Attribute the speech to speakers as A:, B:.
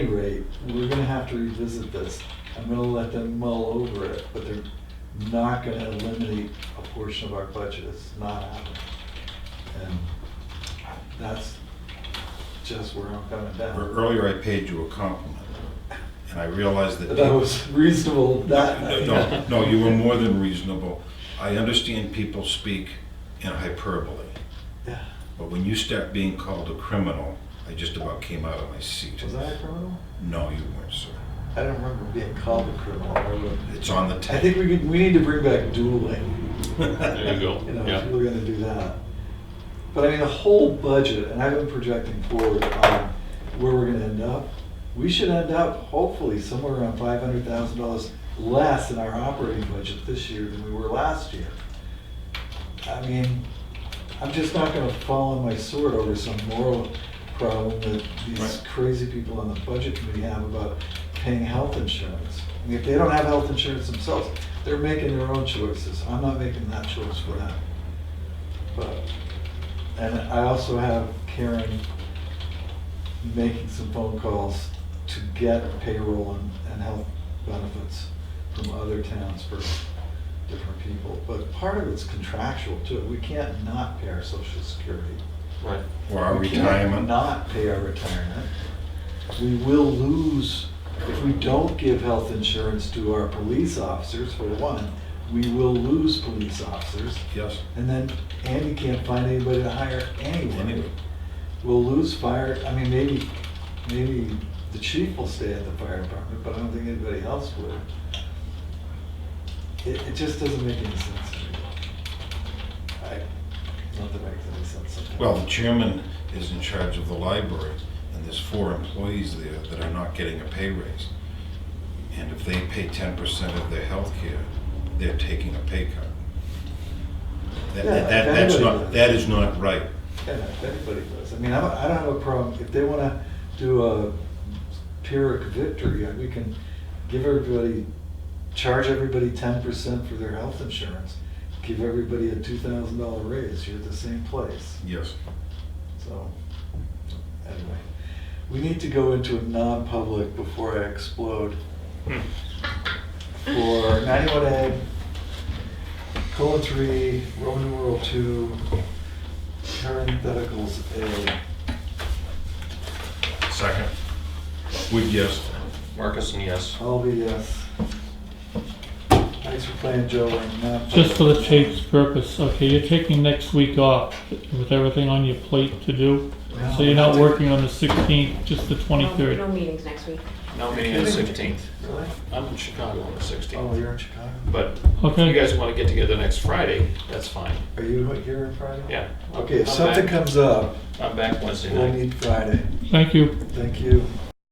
A: any rate, we're gonna have to revisit this. I'm gonna let them mull over it, but they're not gonna eliminate a portion of our budget. It's not happening. And that's just where I'm coming
B: Ear-
A: down.
B: Earlier, I paid you a compliment, and I realized that.
A: That was reasonable, that.
B: No, no, you were more than reasonable. I understand people speak in hyperbole,
A: Yeah.
B: but when you start being called a criminal, I just about came out of my seat.
A: Was I a criminal?
B: No, you weren't, sir.
A: I don't remember being called a criminal. I would-
B: It's on the tape.
A: I think we could, we need to bring back dueling.
C: There you go.
A: you know,
C: Yeah.
A: if we're gonna do that. But I mean, the whole budget, and I've been projecting forward on where we're gonna end up. We should end up hopefully somewhere around five hundred thousand dollars less in our operating budget this year than we were last year. I mean, I'm just not gonna fall on my sword over some moral problem that these
B: Right.
A: crazy people on the budget committee have about paying health insurance. I mean, If they don't have health insurance themselves, they're making their own choices. I'm not making that choice for them. But, and I also have Karen making some phone calls to get payroll and, and health benefits from other towns for different people. But part of it's contractual too. We can't not pay our social security.
C: Right.
B: For our
A: We can't
B: retirement.
A: Not pay our retirement. We will lose, if we don't give health insurance to our police officers, for one, we will lose police officers.
B: Yes,
A: And then Andy can't find anybody to hire anyway.
B: anyway,
A: We'll lose fire, I mean, maybe, maybe the chief will stay at the fire department, but I don't think anybody else would. It, it just doesn't make any sense to me. I, not that makes any sense sometimes.
B: well, the chairman is in charge of the library, and there's four employees there that are not getting a pay raise. And if they pay ten percent of their health care, they're taking a pay cut. That,
A: Yeah,
B: that, that's
A: everybody
B: not,
A: does.
B: that is not right.
A: Yeah, everybody does. I mean, I don't, I don't have a problem, if they wanna do a Pyrrhic victory, uh, we can give everybody, charge everybody ten percent for their health insurance, give everybody a two thousand dollar raise, you're at the same place,
B: Yes.
A: so, anyway. We need to go into a non-public before I explode
C: Hmm.
A: for ninety-one A, colon three, Roman numeral two, parentheticals A.
B: Second. Would yes.
C: Marcus and yes.
A: I'll be yes. Thanks for playing, Joe. and uh, not-
D: Just for the chief's purpose, okay, you're taking next week off with everything on your plate to do, so you're not working on the sixteenth, just the
E: No
D: twenty-third.
E: no meetings next week.
C: Now meeting on the sixteenth.
A: Really?
C: I'm in Chicago on the
A: Oh,
C: sixteenth.
A: you're in Chicago?
C: But if
D: Okay.
C: you guys want to get together next Friday, that's fine.
A: Are you here on Friday?
C: Yeah.
A: Okay, if
C: I'm
A: something
C: back-
A: comes up,
C: I'm back Wednesday
A: we'll
C: night.
A: need Friday.
D: Thank you.
A: Thank you.